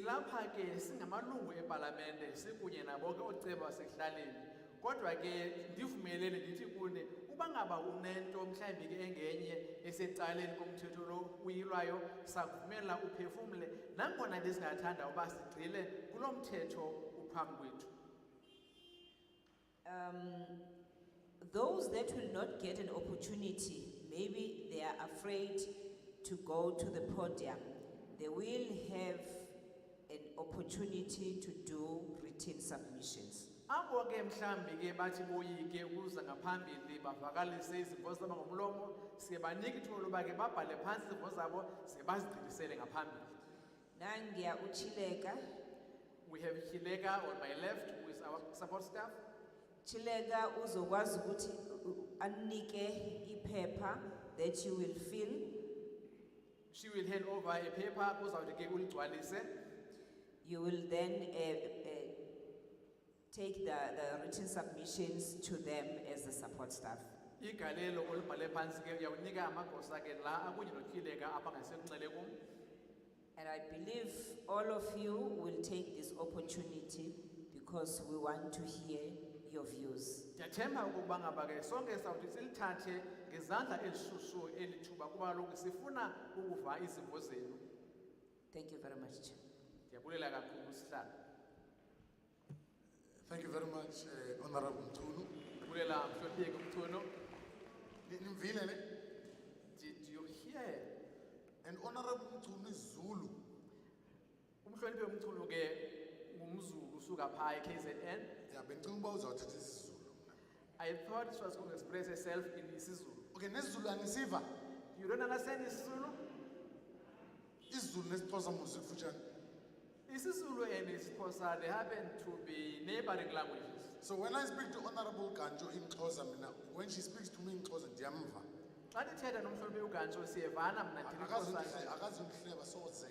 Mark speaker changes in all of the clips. Speaker 1: silapha ke singamalungu epalamente sikunye nabonke ooceba basekuhlaleni kodwa ke ndivumelele ndithi kune uba ngaba unento mhlawumbi ke engenye esecaleni komthetho lo uyilwayo sakuvumela uphefumle nangona ndisingathanda uba sigxile kulo mthetho uphambi kwethu
Speaker 2: Um, those that will not get an opportunity, maybe they are afraid to go to the podium, they will have an opportunity to do written submissions.
Speaker 1: abo ke mhlawumbi ke bathi boyike ukuza ngaphambili bavakalise izimvo zabo ngomlomo siye banike ithuba loba ke babhale phantsi izimvo zabo ze bazigqilisele ngaphambili
Speaker 2: Nangia Uchileka,
Speaker 1: we have hileka on my left who is our support staff
Speaker 2: Chileka uzokwazi ukuthi u- u- anike iphepha that you will fill.
Speaker 1: she will hand over a paper uzawuthi ke uligcwalise
Speaker 2: You will then uh, uh, take the, the written submissions to them as the support staff.
Speaker 1: igalelo olubhale phantsi ke uyawunika amagosa ke la akunye notyhileka abangasekunxele kum
Speaker 2: And I believe all of you will take this opportunity because we want to hear your views.
Speaker 1: ndiyathemba ukuba ngaba ke sonke sawuthi silithathe ngezandla elishushu eli thuba kuba kaloku sifuna ukuva izimvo zenu
Speaker 2: Thank you very much, Chair.
Speaker 1: ndiyabulela kakhulu sihlala
Speaker 3: Thank you very much, eh, Honorable Mtulu.
Speaker 1: ndibulela mhlonipheke umthuno
Speaker 3: Ni- Nimvile ne?
Speaker 1: did you hear
Speaker 3: And Honorable Mtulu is Zulu.
Speaker 1: umhloniphe umthuno ke ngumzulu usuka phaa e-kzn
Speaker 3: Yeah, bencinga uba uzawuthetha isiZulu mna.
Speaker 1: i thought she was going to express herself in isizulu
Speaker 3: Okay, nesiZulu anisiva.
Speaker 1: you don't understand isizulu
Speaker 3: IsiZulu nesiXhosa muzi kufutshane.
Speaker 1: isizulu and isixhosa they happen to be neighboring languages
Speaker 3: So when I speak to Honorable Ganjo in Xhosa mina, when she speaks to me in Xhosa ndiyamva.
Speaker 1: xa ndithetha nomhloniphe ugantsho siyevana mna ndilixhosa
Speaker 3: Akazindihle, akazindihleba soze.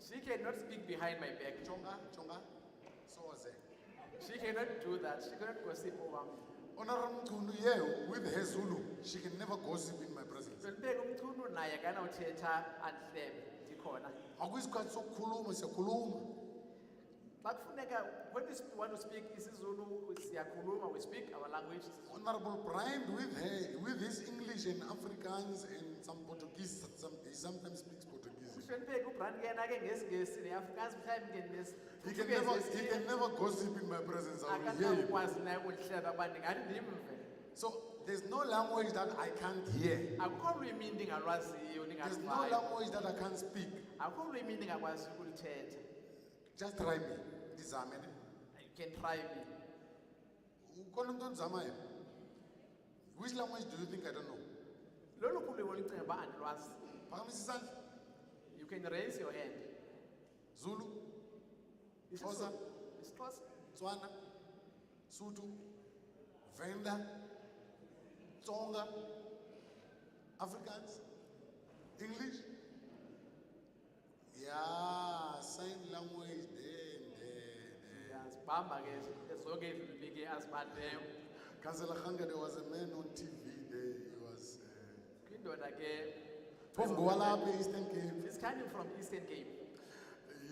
Speaker 1: she cannot speak behind my back
Speaker 3: Jonga, jonga, soze.
Speaker 1: she cannot do that she cannot gossip over me
Speaker 3: Honorable Mtulu, yeah, with her Zulu, she can never gossip in my presence.
Speaker 1: ndibeke umchunu naye kanawuthetha andihlebe ndikhona
Speaker 3: Akuyisikhathi sokukhuluma, siyakhuluma.
Speaker 1: xa kufuneka when we sp- want to speak isizulu siyakhuluma we speak our language
Speaker 3: Honorable Brian with her, with his English and Africans and some Portuguese, some, he sometimes speaks Portuguese.
Speaker 1: mhlonipheke ubran ke yena ke ngesingesi neafrikansi mhlawumbi ke
Speaker 3: He can never, he can
Speaker 1: nesiyesiyeni
Speaker 3: never gossip in my presence, I will hear him.
Speaker 1: akanawukwazi naye ukundihleba uba ndingathi ndimve
Speaker 3: So there's no language that I can't hear.
Speaker 1: akukho lwimi ndingalwaziyo
Speaker 3: There's no
Speaker 1: ndingaluvayo
Speaker 3: language that I can't speak.
Speaker 1: akukho lwimi ndingakwazi ukulithetha
Speaker 3: Just try me, ndizame ne.
Speaker 1: you can try me
Speaker 3: Ukhona umuntu ondizamayo? Which language do you think I don't know?
Speaker 1: loluphi ulwimi olucinga uba andilwazi
Speaker 3: Phakamisa isandla,
Speaker 1: you can raise your hand
Speaker 3: Zulu, Xhosa.
Speaker 1: isixhosa
Speaker 3: Tswana, Sotho, Venda, Tsonga, Afrikaans, English. Yeah, sign language then, then.
Speaker 1: ndiyazibamba ke zonke izilwimi ke azibalileyo
Speaker 3: Councillor Hanga, there was a man on TV there, he was, uh,
Speaker 1: kwindoda ke
Speaker 3: Pov Gwalapi, Eastern Cape.
Speaker 1: is coming from eastern cape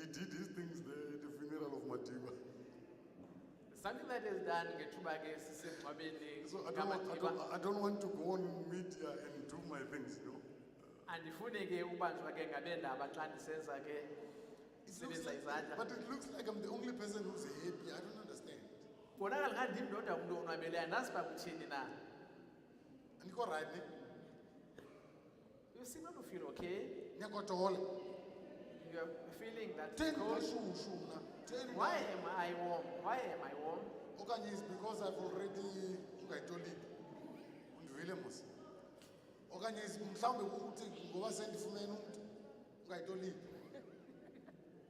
Speaker 3: He did his things there at the funeral of Matiba.
Speaker 1: something that is done ngethuba ke sisemngcwabeni
Speaker 3: So I don't, want- I
Speaker 1: ngamadiba
Speaker 3: don't, I don't want to go on media and do my things, you know.
Speaker 1: andifuni ke ubanjwa ke ngabendaba xa ndisenza ke
Speaker 3: It looks
Speaker 1: Sebenzisa izandla.
Speaker 3: like, but it looks like I'm the only person who's happy. I don't understand.
Speaker 1: bonakala ngathi ndim ndodwa umntu onwabeleyo andazi uba kuthini na
Speaker 3: Andiko right ne?
Speaker 1: you seem not to feel okay
Speaker 3: Nyakotola.
Speaker 1: you are feeling that
Speaker 3: Ten
Speaker 1: cold
Speaker 3: kashushu mna. Ten.
Speaker 1: why am i warm why am i warm
Speaker 3: Okanye is because I've already ungayitoli. Undivile mos. Okanye is mhlambe ukuthi ngoba sendifumene umuntu ungayitoli.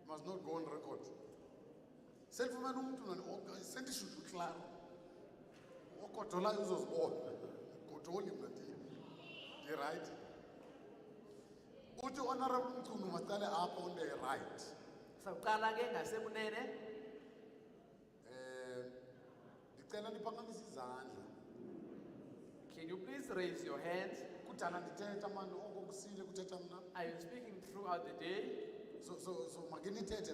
Speaker 3: Must not go on record. Sendifumene umuntu nani oka- sendishushu klaro. Okotola uzozibona. Kotoli mna ndi. Ndi right. Uthi honorable Mchunu masicale apha on the right.
Speaker 1: sawuqala ke ngasekunene
Speaker 3: Eh, ndicela niphakamise izandla
Speaker 1: can you please raise your hands
Speaker 3: kudala ndithetha mani oko kusile kuthetha mna
Speaker 1: are you speaking throughout the day
Speaker 3: so, so, so makenithethe